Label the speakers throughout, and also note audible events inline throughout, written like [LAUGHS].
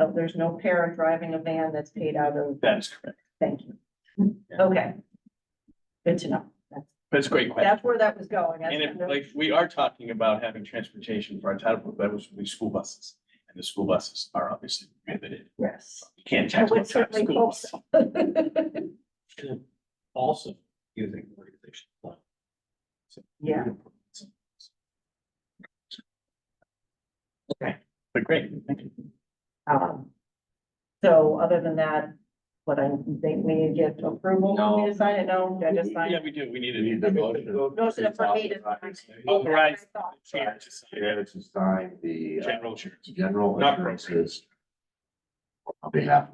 Speaker 1: Oh, there's no parent driving a van that's paid out of,
Speaker 2: That is correct.
Speaker 1: thank you. Okay. Good to know. That's,
Speaker 2: That's a great question.
Speaker 1: that's where that was going. That's
Speaker 2: And if,
Speaker 1: kind of-
Speaker 2: like, we are talking about having transportation for our title, but that was with school buses. And the school buses are obviously prohibited.
Speaker 1: Yes. [LAUGHS]
Speaker 2: You can't
Speaker 1: I
Speaker 2: tax
Speaker 1: would
Speaker 2: what's on
Speaker 1: certainly
Speaker 2: school
Speaker 1: hope
Speaker 2: bus.
Speaker 1: so.
Speaker 3: also using the organization. plan.
Speaker 1: Yeah.
Speaker 2: But great, thank you.
Speaker 1: Um, So other than that, what I think we need to get approval for me to sign it. No, I just signed.
Speaker 2: Yeah,
Speaker 1: it.
Speaker 2: we do. We need a motion.
Speaker 1: No, so for me to sign.
Speaker 2: Authorize.
Speaker 1: I thought.
Speaker 2: Chair to sign
Speaker 4: Chair to sign the uh,
Speaker 2: General insurance.
Speaker 4: general
Speaker 2: Not-
Speaker 4: insurances. On behalf,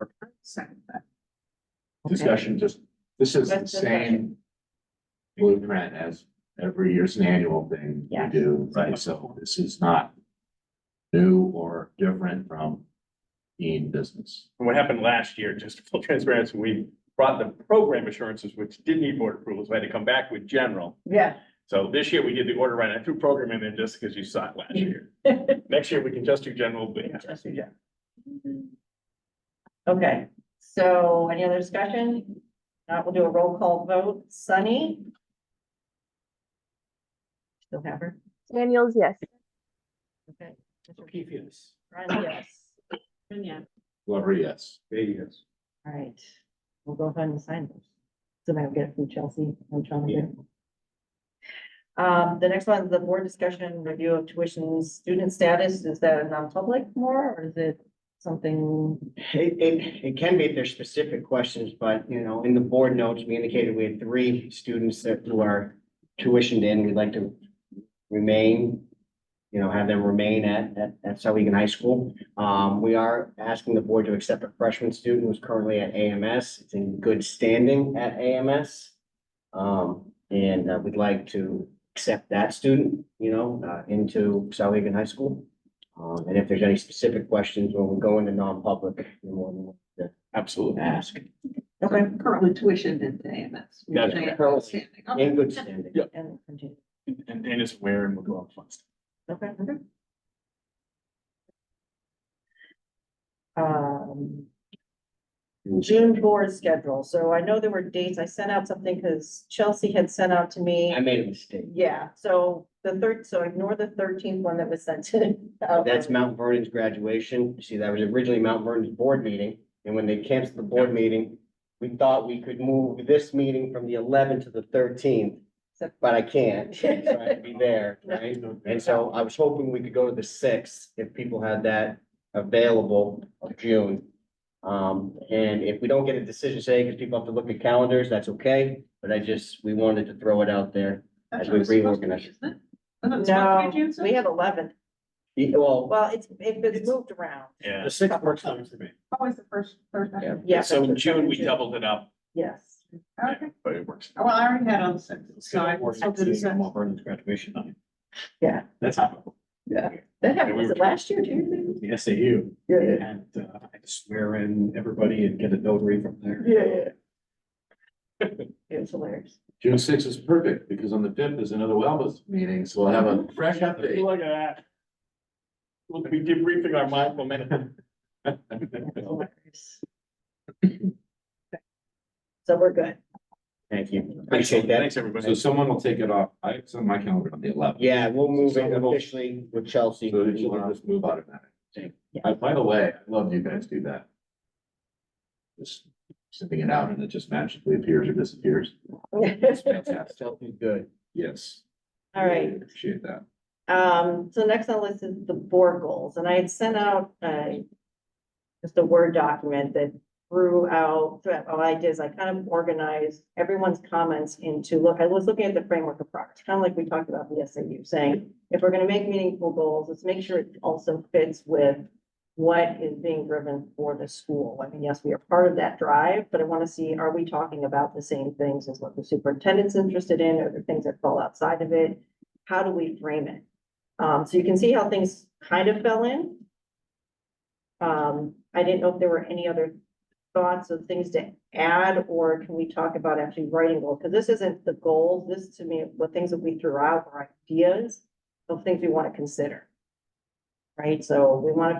Speaker 1: Okay.
Speaker 4: discussion, just, this is the
Speaker 1: That's
Speaker 4: same blueprint as every year's an annual thing we
Speaker 1: Yeah.
Speaker 4: do, right?
Speaker 2: Right.
Speaker 4: So this is not new or different from being business.
Speaker 2: And What happened last year, just for full transparency, we brought the program assurances, which did need board approvals. We had to come back with general.
Speaker 1: Yeah,
Speaker 2: So this year we did the order right. I threw program in there just because you saw it last year. Next year, we can just do general. but-
Speaker 1: Just do general. okay. So any other discussion? Now we'll do a roll call vote. Sunny? Still have her?
Speaker 5: Daniels, yes.
Speaker 1: Okay.
Speaker 3: O'Keefe, yes.
Speaker 1: [COUGHS] Ryan, yes.
Speaker 4: Glover, yes.
Speaker 3: Yes.
Speaker 1: All right, we'll go ahead and sign those. So now get it from Chelsea and John. again. Um, the next one, the board discussion and review of tuition student status, is that a non-public more, or is it something?
Speaker 6: It, it, it can be if there's specific questions, but, you know, in the board notes, we indicated we had three students that who are tuitioned in, we'd like to remain, you know, have them remain at, at, at South High School. Um, we are asking the board to accept a freshman student who's currently at AMS, it's in good standing at AMS. Um, and uh, we'd like to accept that student, you know, uh, into South High School. Um, and if there's any specific questions when we go into non-public, you're more than welcome to
Speaker 2: Absolutely.
Speaker 6: ask.
Speaker 1: Okay.
Speaker 7: currently tuitioned in AMS. We
Speaker 2: That's
Speaker 7: say
Speaker 2: correct.
Speaker 7: outstanding. Okay.
Speaker 6: In good standing.
Speaker 2: Yeah.
Speaker 1: And continue,
Speaker 2: And Dan is aware and we'll go on fun stuff.
Speaker 1: okay. Um. June board schedule, so I know there were dates, I sent out something because Chelsea had sent out to me.
Speaker 6: I made a mistake.
Speaker 1: Yeah, so the third, so ignore the thirteenth one that was sent to. uh, out.
Speaker 6: That's Mount Vernon's graduation. You See, that was originally Mount Vernon's board meeting, and when they canceled the board meeting, we thought we could move this meeting from the eleventh to the thirteenth,
Speaker 1: So-
Speaker 6: but I can't. So I have to be there, right? And so I was hoping we could go to the sixth if people had that available of June. Um, and if we don't get a decision today, because people have to look at calendars, that's okay, but I just, we wanted to throw it out there.
Speaker 7: That's
Speaker 6: As
Speaker 7: what
Speaker 6: we
Speaker 7: it's supposed to be,
Speaker 6: reorganize.
Speaker 7: isn't it? Isn't it
Speaker 1: No,
Speaker 7: supposed to be June sixth?
Speaker 1: we have eleven.
Speaker 6: Yeah, Well,
Speaker 1: Well, it's, it- it's moved around.
Speaker 2: Yeah.
Speaker 3: The sixth works time for me.
Speaker 7: Always the first Thursday.
Speaker 1: Yeah.
Speaker 2: So in
Speaker 1: that's what-
Speaker 2: June, we doubled it up,
Speaker 1: Yes.
Speaker 2: yeah,
Speaker 7: Okay, Oh,
Speaker 2: but it works.
Speaker 7: well, I already had on the sixth, so I
Speaker 3: Or
Speaker 7: can still do the sixth.
Speaker 3: Mount Vernon's graduation night.
Speaker 1: Yeah.
Speaker 3: That's happened.
Speaker 1: That
Speaker 2: Yeah,
Speaker 1: happened,
Speaker 2: we
Speaker 1: was
Speaker 2: were
Speaker 1: it last year, too?
Speaker 3: The SAU.
Speaker 1: Yeah, yeah.
Speaker 3: And uh, I had to swear in everybody and get a notary from there.
Speaker 1: Yeah, yeah. [LAUGHS] It was hilarious.
Speaker 4: June sixth is perfect because on the fifth is another wellness meeting, so we'll have a
Speaker 1: Mm-hmm.
Speaker 4: fresh update.
Speaker 2: Look at that. We'll be debriefing our mindful minute.
Speaker 1: Hilarious. So we're good.
Speaker 6: thank you. Appreciate that.
Speaker 2: Thanks,
Speaker 4: [LAUGHS] So
Speaker 2: everybody.
Speaker 4: someone will take it off. I, it's on my calendar on the eleventh.
Speaker 6: Yeah, we'll move
Speaker 4: So
Speaker 6: it
Speaker 4: we'll-
Speaker 6: officially with Chelsea.
Speaker 4: So you can just move automatic.
Speaker 1: Yeah.
Speaker 4: Uh, by the way, I love you guys do that. Just sending it out and it just magically appears or
Speaker 1: [LAUGHS]
Speaker 4: disappears. It's fantastic.
Speaker 6: Chelsea's good.
Speaker 4: Yes.
Speaker 1: All right.
Speaker 4: Appreciate that.
Speaker 1: Um, so next on the list is the board goals, and I had sent out, uh, just a Word document that threw out, that all I did is I kind of organized everyone's comments into, look, I was looking at the framework of progress, kind of like we talked about in the SAU, saying, if we're gonna make meaningful goals, let's make sure it also fits with what is being driven for the school. I mean, yes, we are part of that drive, but I want to see, are we talking about the same things as what the superintendent's interested in, or the things that fall outside of it? How do we frame it? Um, so you can see how things kind of fell in. Um, I didn't know if there were any other thoughts of things to add, or can we talk about actually writing goals? Because this isn't the goal, this to me, what things that we threw out are ideas of things we want to consider. Right, so we want to